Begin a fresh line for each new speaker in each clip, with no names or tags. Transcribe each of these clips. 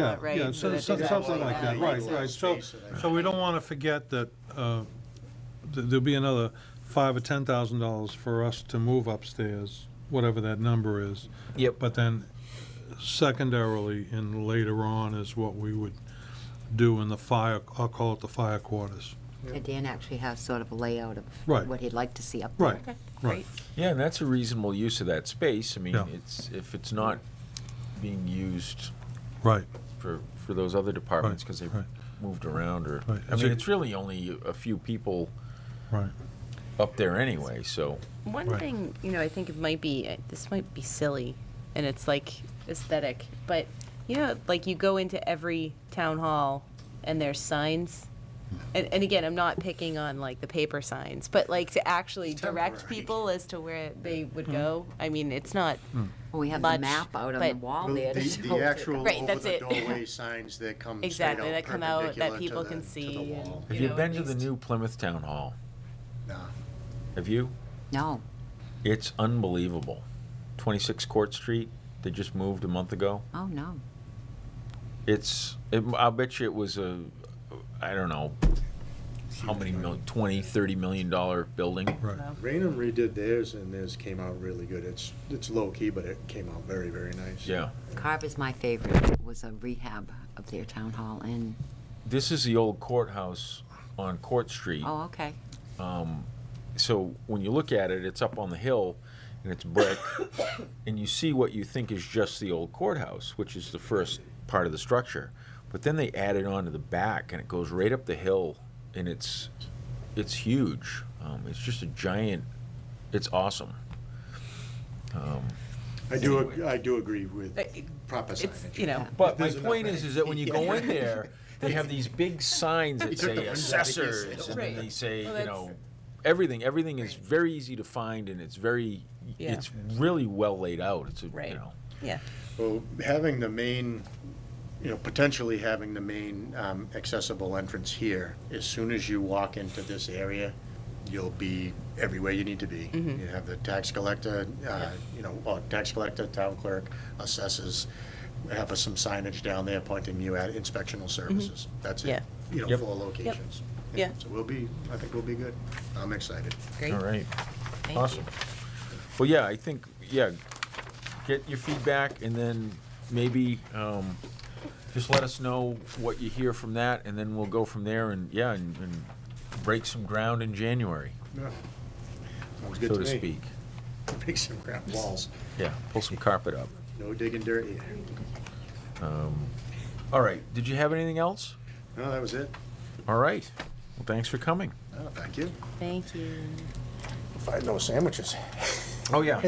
Yeah,
right?
yeah,
So
so-
that
so-
there's
something
actually
like that,
an
right,
exit.
right. So,
Space that I-
so we don't want to forget that uh, th- there'll be another five or ten thousand dollars for us to move upstairs, whatever that number is.
Yep.
But then secondarily and later on is what we would do in the fire, I'll call it the fire quarters.
And Dan actually has sort of a layout of
Right.
what he'd like to see up there.
Right, right.
Yeah, and that's a reasonable use of that space. I mean,
Yeah.
it's, if it's not being used
Right,
for, for those other departments, because they've
right.
moved around or,
Right.
I
So-
mean, it's really only a few people
right.
up there anyway, so.
One
Right.
thing, you know, I think it might be, uh, this might be silly, and it's like aesthetic, but you know, like you go into every town hall and there's signs.
Hmm.
And, and again, I'm not picking on like the paper signs, but like to actually direct
temporary.
people as to where they would
Hmm.
go. I mean, it's not,
Well, we have the
Much,
map out on the
but-
wall
Well,
there. to
The,
show
the
it.
actual
Right,
over
that's
the
it.
doorway signs that come straight out
Exactly, that come out that
perpendicular to
people
the-
can
to the
see and-
wall.
Have
You
you
know,
been
at
to the
least-
new Plymouth Town Hall?
No.
Have you?
No,
It's unbelievable. 26 Court Street, they just moved a month ago.
oh, no.
It's, it, I'll bet you it was a, I don't know, how many mil, 20, 30 million dollar building.
Raynham redid theirs and theirs came out really good. It's, it's low key, but it came out very, very nice.
Yeah.
Carver's my favorite. It was a rehab of their town hall and,
This is the old courthouse on Court Street. Um,
oh, okay.
so when you look at it, it's up on the hill and it's brick, and you see what you think is just the old courthouse, which is the first part of the structure. But then they add it on to the back, and it goes right up the hill, and it's it's huge. Um, it's just a giant. It's awesome. Um,
I do, ag- I do agree with
Uh, it-
proper
it's,
signage.
you know,
but my
There's enough
point
there.
is, is that when you go in there, they have these big signs that
took the
say
wind out of his
assessors,
sails.
and then
Right.
they say,
Well,
you
that's-
know, everything. Everything is very easy to find, and it's very,
Yeah.
it's really well laid out. It's a,
Right.
you know,
yeah.
Well, having the main, you know, potentially having the main um, accessible entrance here, as soon as you walk into this area, you'll be everywhere you need to be.
Mm-hmm.
You have the tax collector, uh, you know, or tax collector, town clerk, assessors, have some signage down there pointing you at inspectional services. That's
Mm-hmm. Yeah.
it, you know,
Yep.
four locations.
Yeah.
So we'll be, I think we'll be good. I'm excited.
Great.
All right,
Thank you.
awesome. Well, yeah, I think, yeah, get your feedback and then maybe, um, just let us know what you hear from that and then we'll go from there and, yeah, and, and break some ground in January,
Sounds good
so
to
to
me.
speak.
Make some ground walls.
Yeah, pull some carpet up.
No digging dirt here.
All right, did you have anything else?
No, that was it.
All right, well, thanks for coming.
Oh, Thank you.
Thank you.
Find those sandwiches.
Oh, yeah.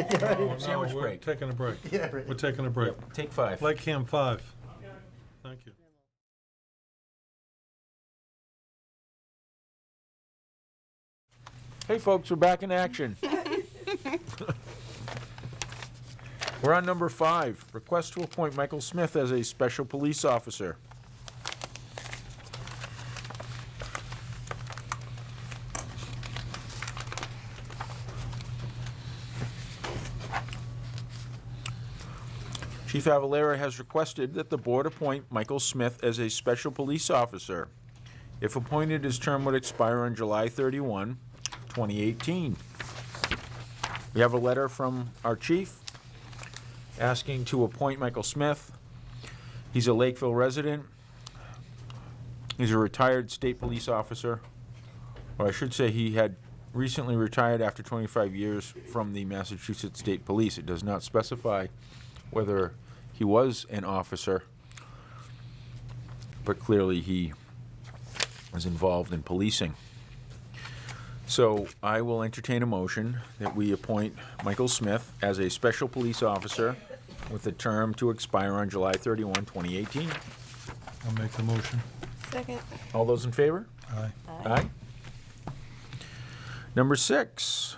Sandwich
No, we're
break.
taking a break.
Yeah, right.
We're taking a break.
Take five.
Like Cam 5. Thank you.
Hey, folks, we're back in action. We're on number five, request to appoint Michael Smith as a special police officer. Chief Avalera has requested that the board appoint Michael Smith as a special police officer. If appointed, his term would expire on July 31, 2018. We have a letter from our chief asking to appoint Michael Smith. He's a Lakeville resident. He's a retired state police officer, or I should say he had recently retired after 25 years from the Massachusetts State Police. It does not specify whether he was an officer, but clearly he was involved in policing. So I will entertain a motion that we appoint Michael Smith as a special police officer with a term to expire on July 31, 2018.
I'll make the motion.
Second.
All those in favor?
Aye.
Aye. Number six,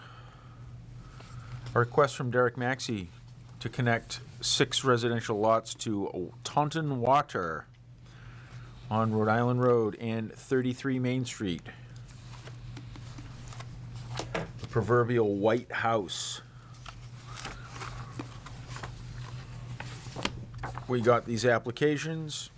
a request from Derek Maxey to connect six residential lots to Taunton Water on Rhode Island Road and 33 Main Street. The proverbial white house. We got these applications.